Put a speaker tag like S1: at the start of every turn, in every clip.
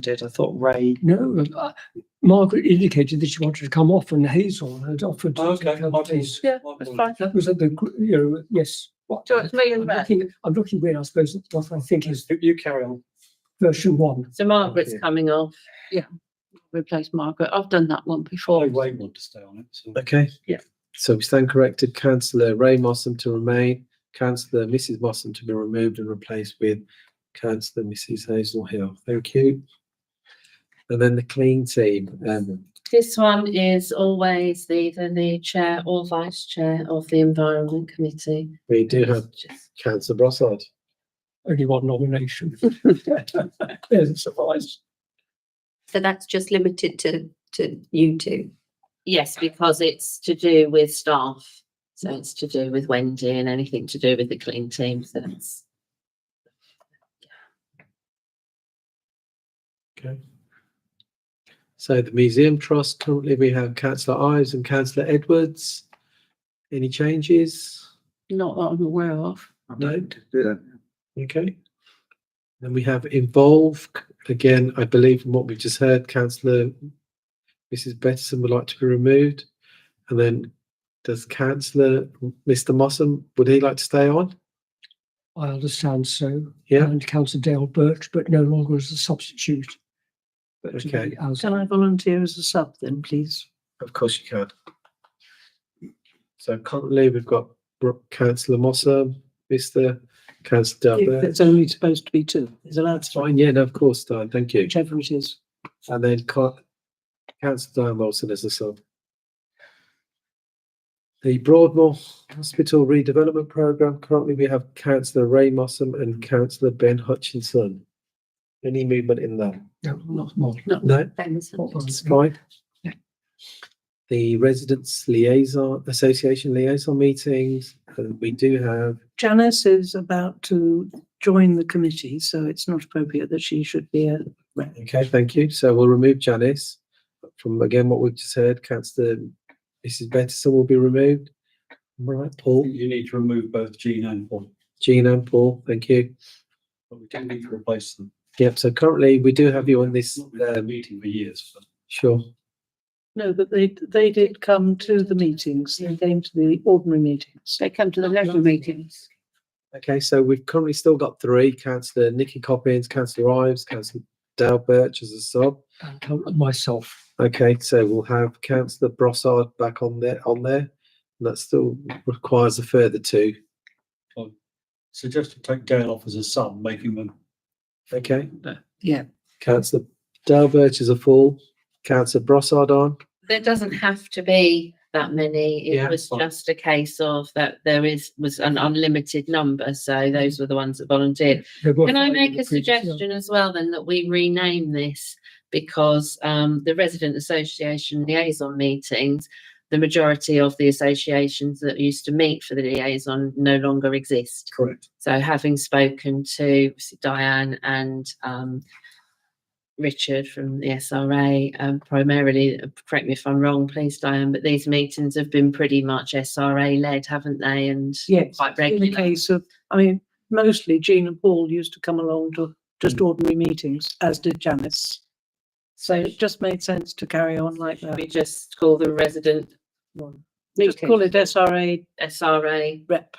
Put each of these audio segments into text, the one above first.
S1: did. I thought Ray.
S2: No, uh, Margaret indicated that she wanted to come off, and Hazel had offered.
S3: Oh,
S2: to come too.
S4: Yeah,
S1: That's
S4: It's fine.
S2: That was at the, gr- you know, yes. What?
S4: So it's me
S2: I'm
S4: and Matt.
S2: looking, I'm looking where I suppose that's what I think is
S1: You carry on.
S2: version one.
S4: So Margaret's
S1: Okay.
S4: coming off. Yeah. Replace Margaret. I've done that one before.
S1: wanted to stay on it. So.
S5: Okay.
S4: Yeah.
S5: So we stand corrected, councillor Ray Mossam to remain, councillor Mrs Mossam to be removed and replaced with councillor Mrs Hazel Hill. Thank you. And then the clean team, um,
S6: This one is always either the chair or vice chair of the environment committee.
S5: we do have
S6: It's just-
S5: councillor Brossard.
S2: Only one nomination. There's a surprise.
S7: So that's just limited to, to you two.
S6: Yes, because it's to do with staff. So it's to do with Wendy and anything to do with the clean team. So that's
S5: Okay. So the museum trust, currently we have councillor Ives and councillor Edwards. Any changes?
S4: Not that I'm aware of.
S5: No? Okay. Then we have involve, again, I believe from what we've just heard, councillor Mrs Bettison would like to be removed. And then does councillor, Mr Mossam, would he like to stay on?
S2: I understand so.
S5: Yeah.
S2: And Councillor Dale Birch, but no longer as a substitute. But to be
S5: Okay.
S2: as-
S4: Can I volunteer as a sub then, please?
S5: Of course you can. So currently we've got Bro- councillor Mossam, Mr councillor Dale
S4: If
S5: Birch.
S4: It's only supposed to be two. Is allowed
S5: That's fine, yeah, no, of course, Dan, thank you.
S4: whichever it is.
S5: And then co- councillor Dan Wilson as a sub. The Broadmoor Hospital redevelopment programme, currently we have councillor Ray Mossam and councillor Ben Hutchinson. Any movement in that?
S2: No, not more.
S5: No,
S7: Thanks.
S5: it's fine.
S2: Yeah.
S5: The residents liaison, association liaison meetings, uh, we do have,
S4: Janice is about to join the committee, so it's not appropriate that she should be a rep.
S5: okay, thank you, so we'll remove Janice. From again, what we've just heard, councillor Mrs Bettison will be removed. Right, Paul?
S3: You need to remove both Gene and Paul,
S5: Jean and Paul, thank you.
S3: but we do need to replace them.
S5: Yep, so currently we do have you on this,
S3: Not been at a
S5: um,
S3: meeting for years, but
S5: sure,
S4: No, but they, they did come to the meetings. They came to the ordinary meetings.
S6: They come to the regular meetings.
S5: okay, so we've currently still got three, councillor Nikki Coppins, councillor Ives, councillor Dale Birch as a sub.
S2: And count on myself.
S5: Okay, so we'll have councillor Brossard back on there, on there, and that still requires a further two,
S3: suggest you take Dale off as a sub, making them
S5: okay?
S4: Yeah.
S5: Councillor Dale Birch is a full, councillor Brossard on,
S6: There doesn't have to be that many.
S5: Yeah,
S6: It was
S5: fine.
S6: just a case of that there is, was an unlimited number. So those were the ones that volunteered. Can I make a suggestion as well then that we rename this? Because um, the resident association liaison meetings, the majority of the associations that used to meet for the liaison no longer exist.
S3: correct.
S6: So having spoken to Diane and um, Richard from the SRA, um, primarily, correct me if I'm wrong, please, Diane, but these meetings have been pretty much SRA led, haven't they? And
S4: Yes.
S6: quite
S4: In the
S6: regular.
S4: case of, I mean, mostly Jean and Paul used to come along to just ordinary meetings, as did Janice. So it just made sense to carry on like that.
S6: We just call the resident
S4: Just call it SRA
S6: SRA
S4: rep.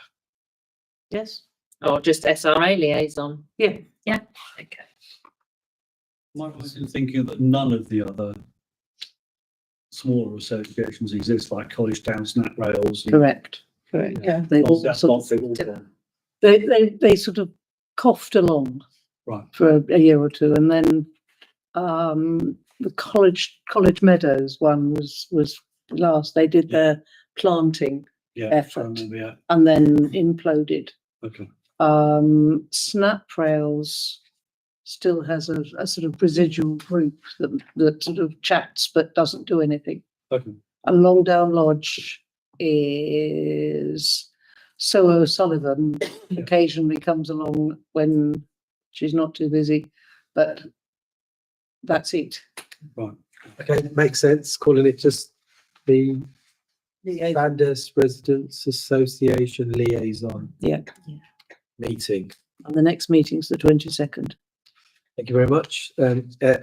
S4: Yes?
S6: or just SRA liaison.
S4: Yeah.
S6: Yeah, okay.
S3: Might was thinking that none of the other smaller associations exist, like College Town, Snap Rails. and-
S4: Correct. Correct, yeah. They all
S3: That's
S4: sort
S3: not
S4: of,
S3: the order.
S4: they, they, they sort of coughed along.
S3: Right.
S4: For a- a year or two and then, um, the college, College Meadows one was, was last. They did
S3: Yeah.
S4: their planting
S3: Yeah, I
S4: effort
S3: remember, yeah,
S4: and then imploded.
S3: okay.
S4: Um, Snaprails still has a, a sort of residual group that, that sort of chats but doesn't do anything.
S3: Okay.
S4: And Longdown Lodge is So O'Sullivan occasionally comes along when she's not too busy, but that's it.
S5: okay, makes sense, calling it just the Sandhurst Residents Association Liaison.
S4: Yeah.
S6: Yeah.
S5: Meeting.
S4: And the next meeting's the twenty-second.
S5: Thank you very much. Um, uh,